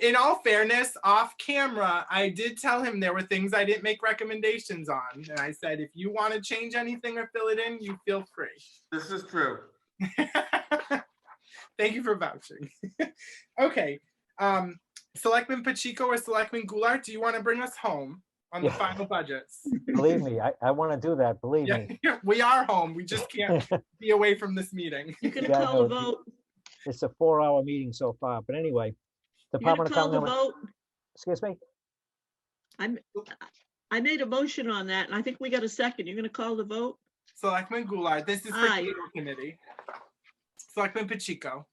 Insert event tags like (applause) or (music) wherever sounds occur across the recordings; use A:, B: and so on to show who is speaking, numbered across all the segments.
A: in all fairness, off camera, I did tell him there were things I didn't make recommendations on. And I said, if you want to change anything or fill it in, you feel free.
B: This is true.
A: Thank you for vouching. (laughs) Okay, um, Selectman Pacheco or Selectman Goulart, do you want to bring us home on the
C: Yeah.
A: final budgets?
C: Believe me, I, I want to do that, believe
A: Yeah,
C: me.
A: we are home. We just can't be away from this meeting.
D: You're gonna
C: Yeah, I
D: call the
C: know.
D: vote,
C: It's a four-hour meeting so far, but anyway.
D: you're
C: Department
D: gonna
C: of
D: call the
C: Commonwealth,
D: vote.
C: excuse me,
D: I'm, I made a motion on that and I think we got a second. You're gonna call the vote?
A: Selectman Goulart, this is for
D: Aye.
A: cable committee. Selectman Pacheco.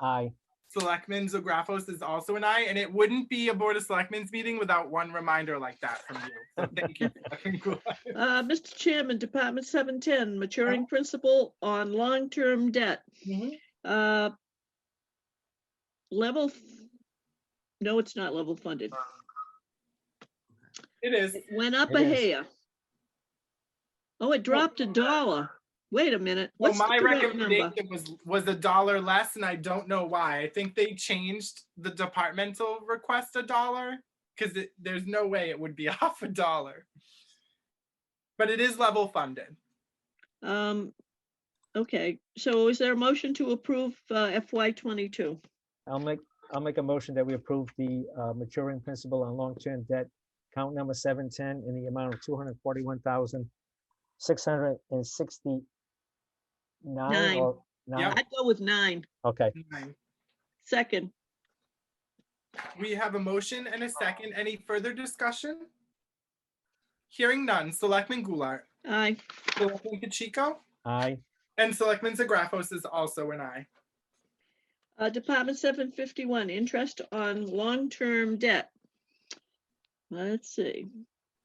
C: aye,
A: Selectman Zagrafos is also an aye, and it wouldn't be a Board of Selectmen's meeting without one reminder like that from you. So thank you. Selectman (laughs) Goulart.
D: Uh, Mr. Chairman, Department seven ten, maturing principal on long-term debt. Uh Level, f- no, it's not level funded.
A: It is.
D: It went up
C: It
D: a
C: is.
D: hair. Oh, it dropped a dollar. Wait a minute.
A: Well,
D: What's the
A: my
D: correct number?
A: recommendation was, was a dollar less, and I don't know why. I think they changed the departmental request a dollar, because there's no way it would be (laughs) off a dollar. But it is level funded.
D: Um, okay, so is there a motion to approve uh, FY twenty-two?
C: I'll make, I'll make a motion that we approve the uh, maturing principal on long-term debt, count number seven-ten, in the amount of two hundred forty-one thousand, six hundred and sixty-nine
D: Nine.
C: or nine,
D: I'd go with nine.
C: okay,
A: Nine.
D: Second,
A: We have a motion and a second. Any further discussion? Hearing none. Selectman Goulart.
D: aye.
A: Selectman Pacheco.
C: aye,
A: And Selectman Zagrafos is also an aye.
D: Uh, Department seven fifty-one, interest on long-term debt. Let's see,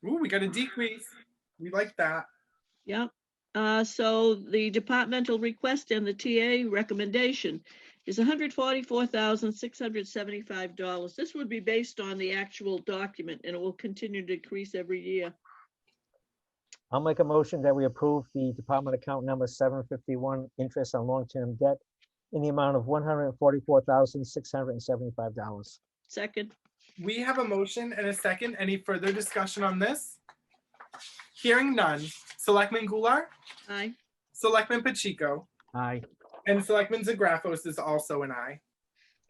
A: Ooh, we got a decrease. We like that.
D: yep. Uh, so the departmental request and the TA recommendation is hundred forty-four thousand, six hundred seventy-five dollars. This would be based on the actual document and it will continue to decrease every year.
C: I'll make a motion that we approve the department account number seven fifty-one, interest on long-term debt, in the amount of one hundred and forty-four thousand, six hundred and seventy-five dollars.
D: Second,
A: We have a motion and a second. Any further discussion on this? Hearing none. Selectman Goulart,
D: aye.
A: Selectman Pacheco,
C: Aye.
A: and Selectman Zagrafos is also an aye.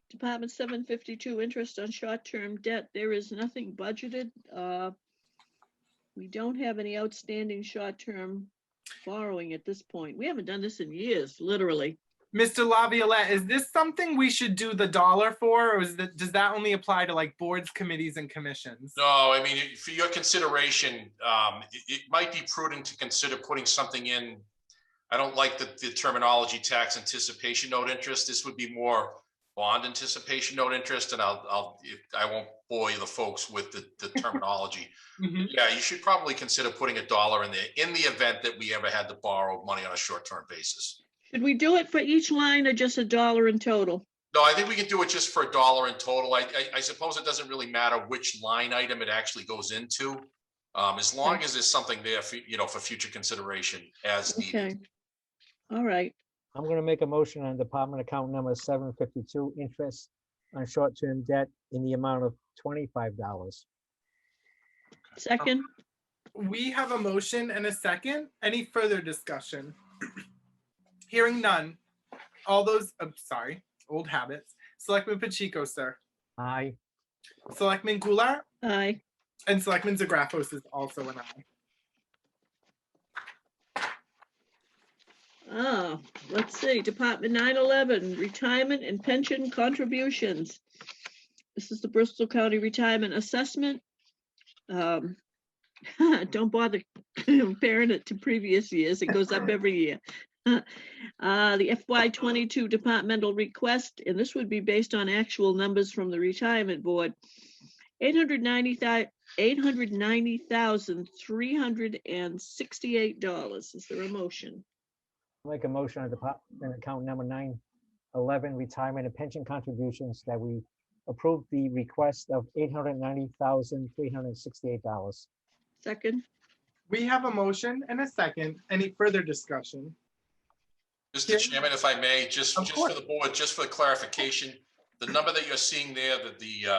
D: Department seven fifty-two, interest on short-term debt. There is nothing budgeted. uh, We don't have any outstanding short-term borrowing at this point. We haven't done this in years, literally.
A: Mr. Laviolette, is this something we should do the dollar for, or is that, does that only apply to like boards, committees, and commissions?
E: No, I mean, for your consideration, um, it, it might be prudent to consider putting something in. I don't like the, the terminology tax anticipation note interest. This would be more bond anticipation note interest, and I'll, I'll, if- I won't bore you the folks with the, the terminology.
A: Mhm.
E: Yeah, you should probably consider putting a dollar in there in the event that we ever had to borrow money on a short-term basis.
D: Should we do it for each line or just a dollar in total?
E: No, I think we can do it just for a dollar in total. I, I, I suppose it doesn't really matter which line item it actually goes into. Um, as long as there's something there for, you know, for future consideration as needed.
D: Okay. All right,
C: I'm gonna make a motion on department account number seven fifty-two, interest on short-term debt in the amount of twenty-five dollars.
D: second,
A: We have a motion and a second. Any further discussion? (clears throat) Hearing none. All those, i sorry, old habits. Selectman Pacheco, sir.
C: Aye,
A: Selectman Goulart
D: aye.
A: and Selectman Zagrafos is also an aye.
D: Oh, let's see, Department nine eleven, retirement and pension contributions. This is the Bristol County Retirement Assessment. Um, (laughs) Don't bother (laughs) comparing it to previous years. It goes up every year. (laughs) Uh, The FY twenty-two departmental request, and this would be based on actual numbers from the retirement board. Eight hundred ninety thousand eight hundred ninety thousand three hundred and sixty-eight dollars. Is there a motion?
C: make a motion on department account number nine eleven, retirement and pension contributions, that we approve the request of eight hundred ninety thousand, three hundred and sixty-eight dollars.
D: Second,
A: We have a motion and a second. Any further discussion?
E: Mr. Chairman, if I may, just,
A: Of
E: just
A: course.
E: for the board, just for clarification, the number that you're seeing there, that the, uh,